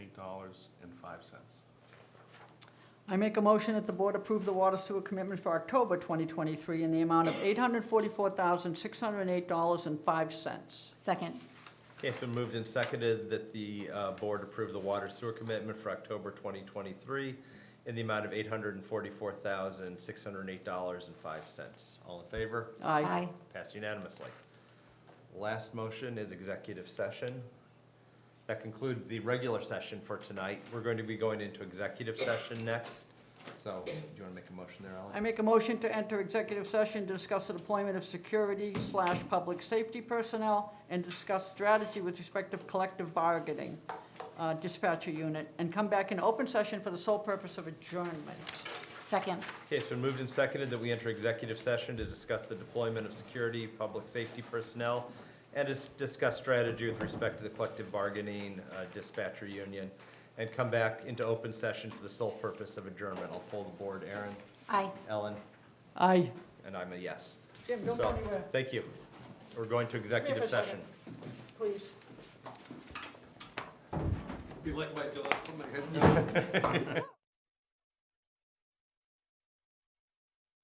dollars and five cents. I make a motion that the board approve the water sewer commitment for October 2023 in the amount of $844,608.05. Second. Okay, it's been moved and seconded that the uh, board approve the water sewer commitment for October 2023 in the amount of $844,608.05. All in favor? Aye. Passed unanimously. Last motion is executive session. That concludes the regular session for tonight. We're going to be going into executive session next. So do you want to make a motion there, I Ally? make a motion to enter executive session to discuss the deployment of security slash public safety personnel and discuss strategy with respect to collective bargaining uh, dispatcher unit, and come back in open session for the sole purpose of adjournment. Second. Okay, it's been moved and seconded that we enter executive session to discuss the deployment of security, public safety personnel, and dis- discuss strategy with respect to the collective bargaining uh, dispatcher union, and come back into open session for the sole purpose of adjournment. I'll pull the board. Aaron, Aye. Ellen, Aye. and I'm a yes. Jim, don't So, go anywhere. Thank you. We're going to executive for a session. second. Please. You like my, put my head